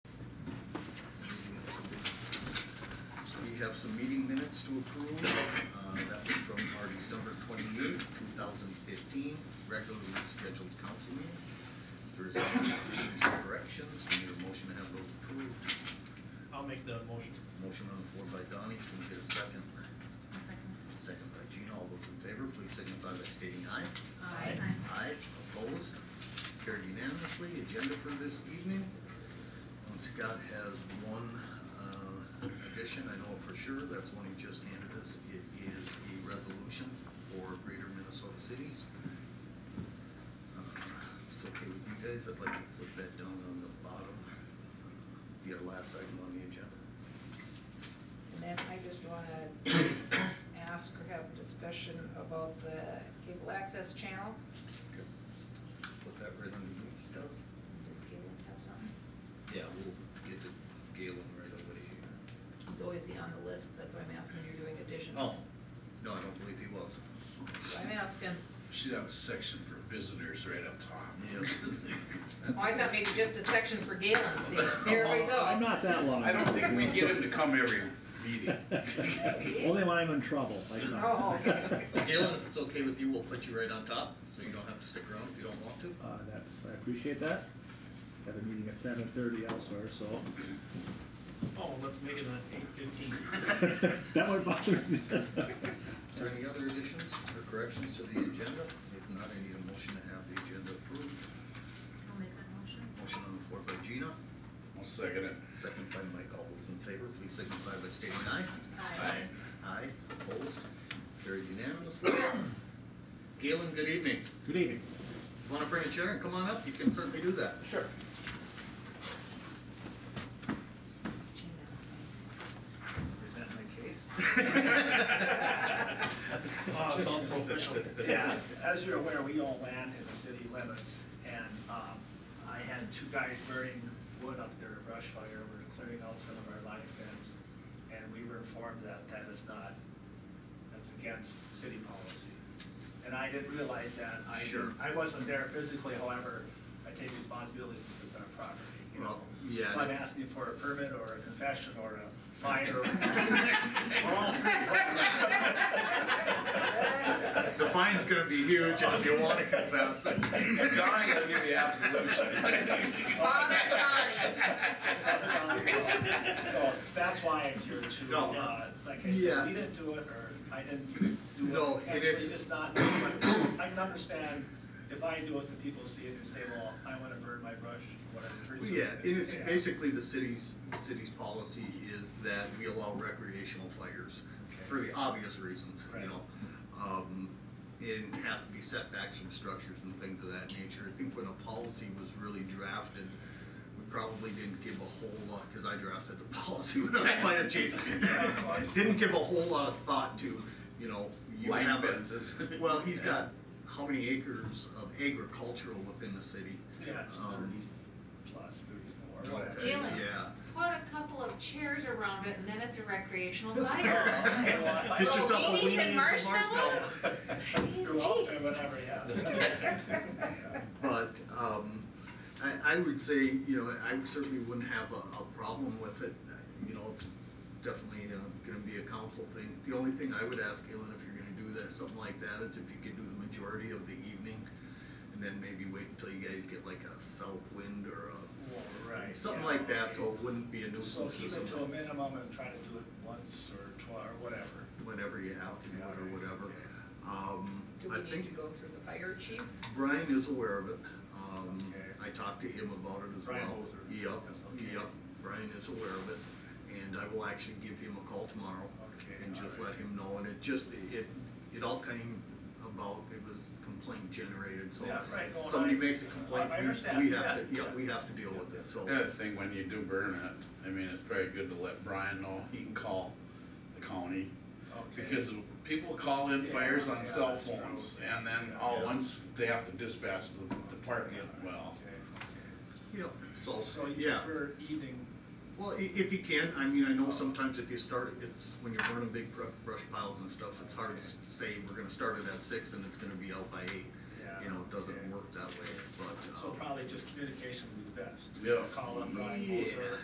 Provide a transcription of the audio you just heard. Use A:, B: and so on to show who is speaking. A: have some meeting minutes to approve. Uh, That's from our December twenty-eighth, two thousand fifteen, regularly scheduled council meeting. There is no additions or corrections, we need a motion to have those approved.
B: I'll make the motion.
A: Motion on the floor by Donnie, can we get a second?
C: I'll second.
A: Second by Gina, all those in favor, please signify by stating aye.
B: Aye.
A: Aye, opposed, carried unanimously. Agenda for this evening. Um, Scott has one uh, addition, I know for sure, that's one he just handed us. It is a resolution for Greater Minnesota Cities. Uh, if It's okay with you guys, I'd like to put that down on the bottom, be our last item on the agenda.
D: And then I just wanna ask or have discussion about the cable access channel.
A: Okay. Put that right underneath Scott.
D: Just Galen have something.
A: Yeah, we'll get to Galen right away here.
D: So is he on the list? That's why I'm asking, you're doing additions.
A: Oh, no, I don't believe he was.
D: So I'm asking.
E: Should have a section for visitors right up top.
D: Oh, I thought maybe just a section for Galen, see, there we go.
F: I'm not that long.
E: I don't think we get him to come every meeting.
F: Only when I'm in trouble, I come.
D: Oh, okay.
A: Galen, if it's okay with you, we'll put you right on top, so you don't have to stick around if you don't want to.
F: Uh, that's, I appreciate that. Have a meeting at seven thirty elsewhere, so
B: Oh, let's make it an eight fifteen.
F: that would bother me.
A: Is there any other additions or corrections to the agenda? If not, I need a motion to have the agenda approved.
C: I'll make that motion.
A: Motion on the floor by Gina,
E: I'll second it.
A: second by Mike. All those in favor, please signify by stating aye.
D: Aye.
A: Aye, opposed, carried unanimously. Galen, good evening.
F: Good evening.
A: Want to bring a chair and come on up? You can certainly do that.
E: Sure.
A: Present my case.
B: Oh, it sounds so official.
G: Yeah, as you're aware, we own land in the city limits, and um, I had two guys burning wood up there at brush fire, we were clearing out some of our line fence, and we were informed that that is not, that's against city policy. And I didn't realize that, I,
A: Sure.
G: I wasn't there physically, however, I take responsibilities if it's our property, you know?
A: Well, yeah.
G: So I'm asking for a permit or a confession or a fine or. We're all three.
A: The fine's gonna be huge if you wanna confess.
E: And Donnie will give you absolution.
D: Father Donnie.
G: So that's why if you're too,
A: No.
G: uh, like I
A: Yeah.
G: said, we didn't do it, or I didn't do
A: No,
G: it,
A: it
G: actually,
A: is-
G: just not, I can understand if I do it, the people see it and say, well, I wanna burn my brush, whatever.
A: Well,
G: reason
A: Yeah,
G: it is.
A: it's basically the city's, the city's policy is that we allow recreational fires for the obvious reasons, you
G: Right.
A: know. Um, and have to be setbacks from structures and things of that nature. I think when a policy was really drafted, we probably didn't give a whole lot, cause I drafted the policy when I was fire chief. Didn't give a whole lot of thought to, you know, you
E: Line
A: have a-
E: fences.
A: Well, he's got how many acres of agricultural within the city?
G: Yeah, it's
A: Um,
G: thirty plus, thirty-four, whatever.
A: Okay,
D: Galen.
A: Yeah.
D: Put a couple of chairs around it and then it's a recreational fire.
G: Okay, well, if I-
A: Get
D: Little
A: yourself a
D: beanies
A: weenie
D: and
A: and some
D: marshmallows?
G: You're welcome, whatever, yeah.
A: But, um, I, I would say, you know, I certainly wouldn't have a, a problem with it, you know, it's definitely, uh, gonna be a council thing. The only thing I would ask, Galen, if you're gonna do that, something like that, is if you could do the majority of the evening, and then maybe wait until you guys get like a south wind or a,
G: Well, Right.
A: something
G: yeah,
A: like that,
G: okay.
A: so it wouldn't be a nuisance
G: So
A: or
G: keep it to a
A: something.
G: minimum and try to do it once or twice, or whatever.
A: Whenever you have to, do it or whatever. Um,
D: Do
A: I
D: we need
A: think-
D: to go through the fire chief?
A: Brian is aware of it. Um,
G: Okay.
A: I talked to him about it as well.
G: Brian Moser.
A: Yep,
G: That's okay.
A: yep, Brian is aware of it, and I will actually give him a call tomorrow.
G: Okay,
A: And just
G: all
A: let
G: right.
A: him know, and it just, it, it all came about, it was complaint generated, so.
G: Yeah, right, well,
A: Somebody
G: I-
A: makes a complaint,
G: I- I
A: we-
G: understand,
A: we have to,
G: yeah.
A: yeah, we have to deal with it, so.
E: The other thing, when you do burn it, I mean, it's probably good to let Brian know, he can call the county.
G: Okay.
E: Because people call in fires
G: Yeah,
E: on cell
G: that's true.
E: phones, and then all at once, they have to dispatch the department, well.
G: Okay,
A: Yeah, so,
G: okay. So you
A: yeah.
G: prefer evening,
A: Well, i- if you can, I mean, I know sometimes if you start, it's, when you're burning big bru- brush piles and stuff, it's hard to s- say, we're gonna start it at six and it's gonna be out by eight.
G: Yeah,
A: You know, it
G: okay.
A: doesn't work that way, but,
G: so
A: um,
G: probably just communication would be best.
E: Yeah.
G: Call up Brian
A: Mm-hmm. Yeah.
G: Moser,